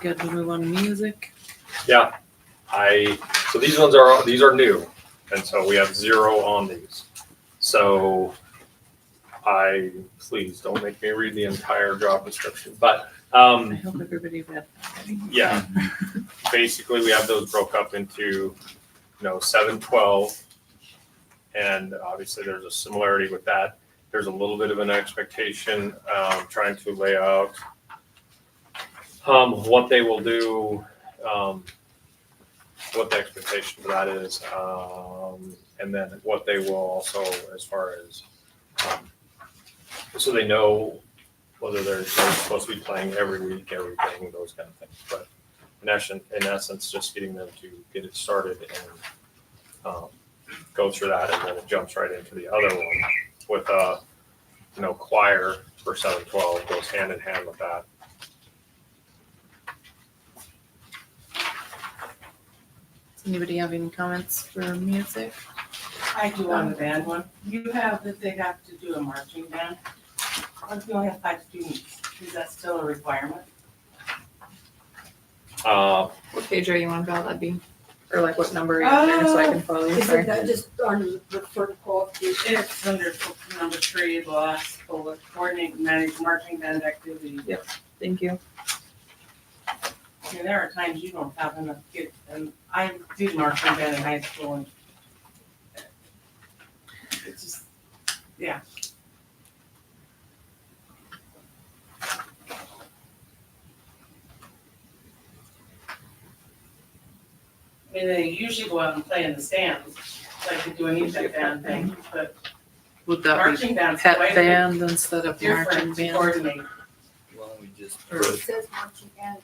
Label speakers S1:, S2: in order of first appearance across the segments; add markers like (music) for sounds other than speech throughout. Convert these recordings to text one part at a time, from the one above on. S1: Good to move on to music.
S2: I so these ones are these are new, and so we have zero on these. So I please don't make me read the entire job description, but
S1: I
S2: um,
S1: hope everybody read that. already.
S2: yeah, (laughs) basically we have those broke up into you know seven twelve, and obviously there's a similarity with that. There's a little bit of an expectation um, trying to lay out um, what they will do. Um, what the expectation for that is, um, and then what they will also, as far as, um, so they know whether they're, they're supposed to be playing every week, everything, those kind of things. But in essence, in essence, just getting them to get it started and um, go through that, and then it jumps right into the other one with uh, you know, choir for seven twelve goes hand in hand with that.
S1: Does anybody have any comments for music?
S3: I do on the band one. You have that they have to do a marching band. What if you only have five students? Is that still a requirement?
S2: Uh,
S4: What page are you on, Val? That'd be.
S1: Or like what number are you on there so I can follow you?
S5: Isn't
S1: Sorry.
S5: that just on the first qualification?
S3: It's under number three, the last bullet, coordinate and manage marching band activities.
S1: Thank you.
S3: I mean, there are times you don't have enough kids, and I did marching band in high school and uh, it's just, yeah. I mean, they usually go out and play in the stands, like they do an Egypt band thing, but
S1: Would that be
S3: marching band's
S1: pet
S3: quite a
S1: band instead
S3: bit
S1: of marching
S3: different to
S1: band?
S3: coordinate.
S6: Why don't we just
S1: Or-
S5: It says marching and.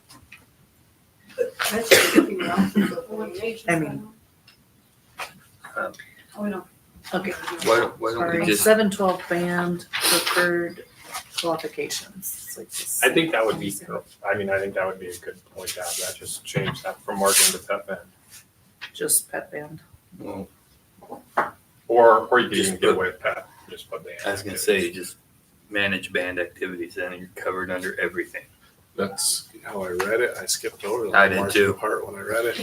S5: But That's just giving the options of variations.
S1: I mean-
S5: Um, Oh, no.
S1: Okay.
S6: why don't, why don't we
S1: Sorry,
S6: just
S1: seven twelve band preferred qualifications. It's like this-
S2: I think that would be, I mean, I think that would be a good point to have, that just change that from marching to pep band.
S1: Just pet band.
S6: well,
S2: Or, or you could
S6: Just
S2: even get
S6: put-
S2: away with pep, just put band.
S6: I was gonna say just manage band activities and you're covered under everything.
S7: That's how I read it. I skipped over the
S6: I did
S7: marching
S6: too.
S7: part when I read it.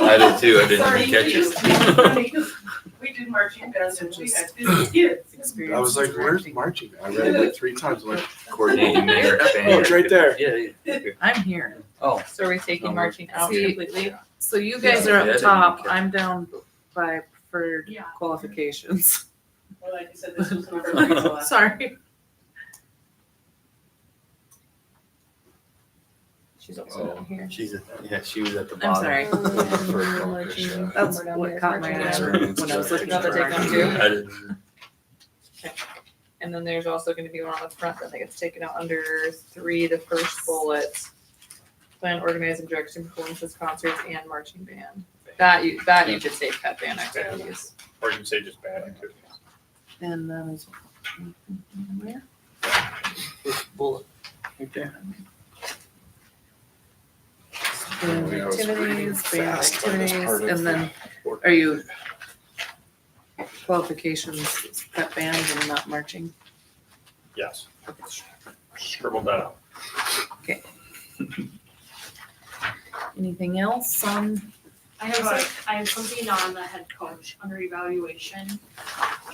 S6: I did too, I didn't
S3: Sorry,
S6: even catch
S3: you.
S6: (laughs) it.
S3: We did marching bands and we had fifty kids.
S7: I was like, where's marching? I read it like three times. I'm like,
S6: Coordinating their band.
S7: Oh, it's right there.
S6: Yeah, yeah.
S1: I'm here.
S6: Oh,
S4: So are we taking
S6: Um,
S4: marching out
S1: see-
S4: completely?
S1: So you guys
S6: Yeah,
S1: are
S6: yeah, I
S1: up
S6: didn't
S1: top.
S6: catch-
S1: I'm down by preferred
S3: Yeah.
S1: qualifications. (laughs)
S3: Well, like you said, this was number three, so I-
S1: Sorry.
S4: She's also
S6: Oh.
S4: down here.
S6: she's, a- yeah, she was at the
S1: I'm
S6: bottom.
S1: sorry.
S6: (laughs)
S1: Oh,
S6: First one, for sure.
S1: That's
S4: We're down
S1: what
S4: there.
S1: caught my
S4: Marching
S1: eye
S7: band.
S1: when I was looking at
S4: Another
S1: the
S4: take on
S1: marching
S4: two.
S1: band.
S6: I didn't-
S4: And then there's also gonna be one on the front that gets taken out under three, the first bullet. Plan, organize, and direct student performances, concerts, and marching band. That you, that you should say pet band activities.
S2: Or you can say just band activities.
S1: And that was. Where?
S6: First bullet, right there.
S1: Band
S7: Yeah, I was reading
S1: activities, band
S7: fast on this
S1: activities,
S7: part of
S1: and then
S7: the-
S1: are you qualifications, pep band and not marching?
S2: Yes. Scribble that out.
S1: Anything else on?
S8: I have some, I have something on the head coach under evaluation.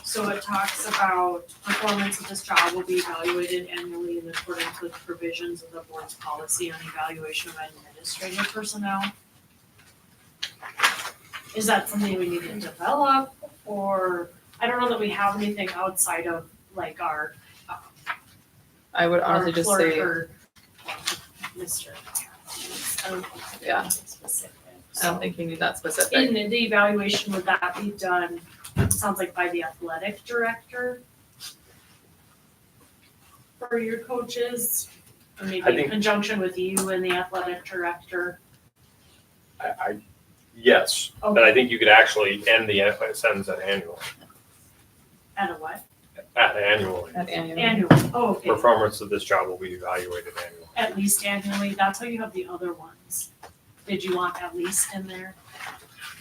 S8: So it talks about performance of this job will be evaluated annually in accordance with provisions of the board's policy on evaluation of administrative personnel. Is that something we need to develop or, I don't know that we have anything outside of like our, um,
S4: I would
S8: our
S4: honestly just
S8: clerk
S4: say,
S8: or Mister. I
S3: Um,
S8: don't think we
S4: Yeah.
S8: have anything specific.
S4: I don't think you need that specific.
S8: In the evaluation, would that be done, it sounds like by the athletic director? For your coaches, or
S2: I
S8: maybe
S2: think-
S8: in conjunction with you and the athletic director?
S2: I, I, yes,
S8: oh,
S2: but I think you could actually end the uh, sentence at annual,
S8: At a what?
S2: at annually.
S4: At annual.
S8: Annual, oh, okay,
S2: Performance of this job will be evaluated annually.
S8: at least annually, that's how you have the other ones. Did you want at least in there?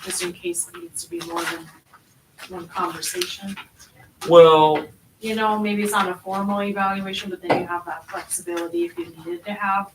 S8: Just in case it needs to be more than one conversation?
S2: Well,
S8: you know, maybe it's not a formal evaluation, but then you have that flexibility if you needed to have